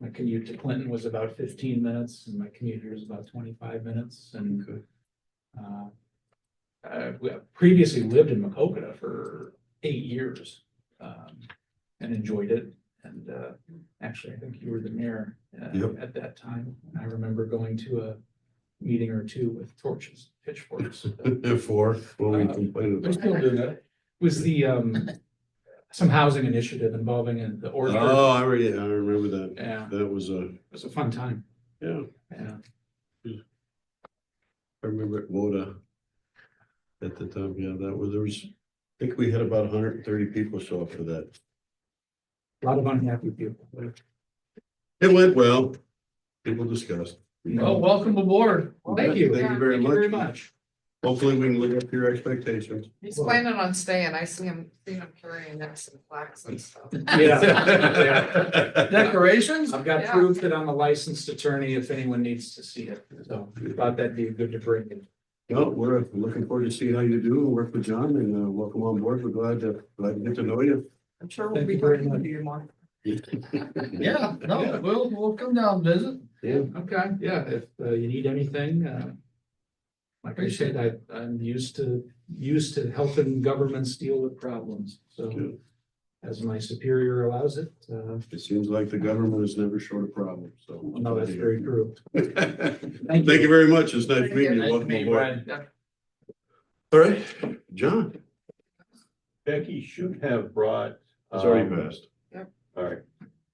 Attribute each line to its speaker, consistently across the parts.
Speaker 1: My commute to Clinton was about fifteen minutes and my commute here is about twenty-five minutes and uh, uh, we previously lived in Macokota for eight years, um, and enjoyed it. And, uh, actually, I think you were the mayor, uh,
Speaker 2: Yep.
Speaker 1: at that time. And I remember going to a meeting or two with torches, pitchforks.
Speaker 2: For, what we
Speaker 1: Uh,
Speaker 2: complained
Speaker 1: We're
Speaker 2: about.
Speaker 1: still doing that. Was the, um, some housing initiative involving in the Orford.
Speaker 2: Oh, I already, I remember that.
Speaker 1: Yeah, it
Speaker 2: That was a,
Speaker 1: was a fun time.
Speaker 2: yeah,
Speaker 1: Yeah.
Speaker 2: I remember at Woda. At the time, yeah, that was, there was, I think we had about hundred and thirty people show up for that.
Speaker 1: A lot of unhappy people.
Speaker 2: It went well. People discussed.
Speaker 1: Oh.
Speaker 3: Well, welcome aboard.
Speaker 1: Thank you.
Speaker 2: Oh, Thank you very
Speaker 1: Thank you very
Speaker 2: much.
Speaker 1: much.
Speaker 2: Hopefully we can live up to your expectations.
Speaker 3: He's planning on staying. I see him, seen him carrying necks and plaques and stuff.
Speaker 1: Yeah.
Speaker 3: Decorations?
Speaker 1: I've got
Speaker 3: Yeah.
Speaker 1: proof that I'm a licensed attorney if anyone needs to see it, so I thought that'd be good to bring in.
Speaker 2: Well, we're looking forward to see how you do and work with John and uh, welcome on board. We're glad to, glad to get to know you.
Speaker 3: I'm sure
Speaker 1: Thank
Speaker 3: we'll be
Speaker 1: you very
Speaker 3: talking
Speaker 1: much.
Speaker 3: to you more. Yeah, no, we'll, we'll come down, and visit.
Speaker 1: Okay, yeah, if uh, you need anything, uh. Like I said, I, I'm used to, used to helping governments deal with problems,
Speaker 2: Yeah.
Speaker 1: so. As my superior allows it, uh,
Speaker 2: It seems like the government is never short of problems, so.
Speaker 1: Oh, no, that's very true.
Speaker 2: Thank you very much. It's nice meeting you. Welcome aboard. All right, John,
Speaker 4: Becky should have brought.
Speaker 2: it's already
Speaker 4: um,
Speaker 2: passed.
Speaker 4: All right,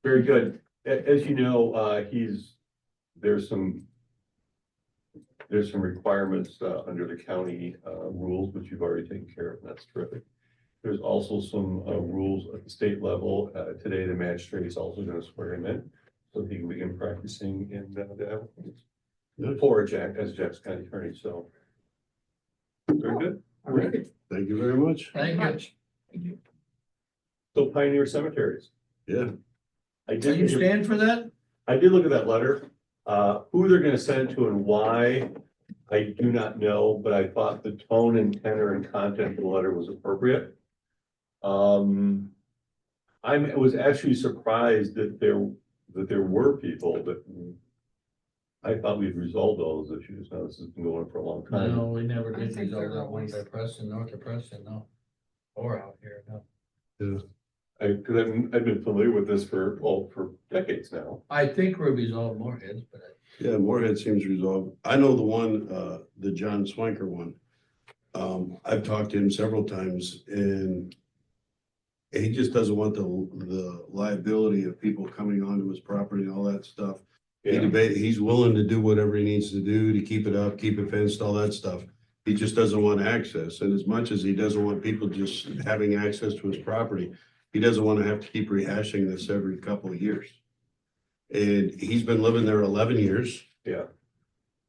Speaker 4: very good. A- as you know, uh, he's, there's some. There's some requirements, uh, under the county, uh, rules, which you've already taken care of, and that's terrific. There's also some, uh, rules at the state level. Uh, today, the magistrate is also gonna swear him in. So he can begin practicing in uh, the, for Jack, as Jack's county attorney, so. Very good.
Speaker 1: All right,
Speaker 2: Thank you very much.
Speaker 3: Thank you.
Speaker 4: So Pioneer Cemeteries.
Speaker 2: Yeah,
Speaker 4: I did.
Speaker 3: Do you stand for that?
Speaker 4: I did look at that letter, uh, who they're gonna send to and why, I do not know, but I thought the tone and tenor and content of the letter was appropriate. Um, I'm, I was actually surprised that there, that there were people that I thought we'd resolved all those issues, now this has been going on for a long time.
Speaker 5: No, we never
Speaker 3: I
Speaker 5: did
Speaker 3: think
Speaker 5: resolve
Speaker 3: they're
Speaker 5: that one by
Speaker 3: always-
Speaker 5: Preston, north of Preston, no. Or out here, no.
Speaker 4: I, cause I've, I've been familiar with this for, well, for decades now.
Speaker 5: I think we resolved Morehead's, but
Speaker 2: yeah, Morehead seems resolved. I know the one, uh, the John Swanker one. Um, I've talked to him several times and he just doesn't want the, the liability of people coming onto his property and all that stuff. He
Speaker 4: Yeah.
Speaker 2: debate, he's willing to do whatever he needs to do to keep it up, keep it fenced, all that stuff. He just doesn't want access, and as much as he doesn't want people just having access to his property, he doesn't want to have to keep rehashing this every couple of years. And he's been living there eleven years.
Speaker 4: Yeah.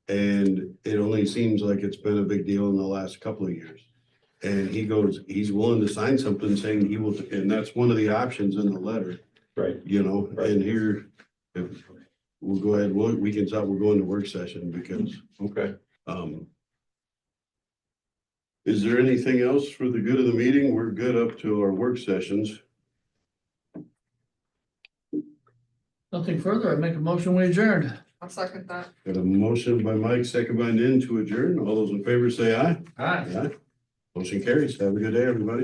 Speaker 2: And it only seems like it's been a big deal in the last couple of years. And he goes, he's willing to sign something saying he will, and that's one of the options in the letter
Speaker 4: Right.
Speaker 2: you know, and here, if, we'll go ahead, we'll, we can, stop, we'll go into work session because,
Speaker 4: Okay,
Speaker 2: um, is there anything else for the good of the meeting? We're good up to our work sessions.
Speaker 5: nothing further. I make a motion, we adjourn.
Speaker 3: I'll second that.
Speaker 2: Got a motion by Mike, second by Nan to adjourn. All those in favor say aye.
Speaker 5: Aye.
Speaker 2: Aye. Motion carries. Have a good day, everybody.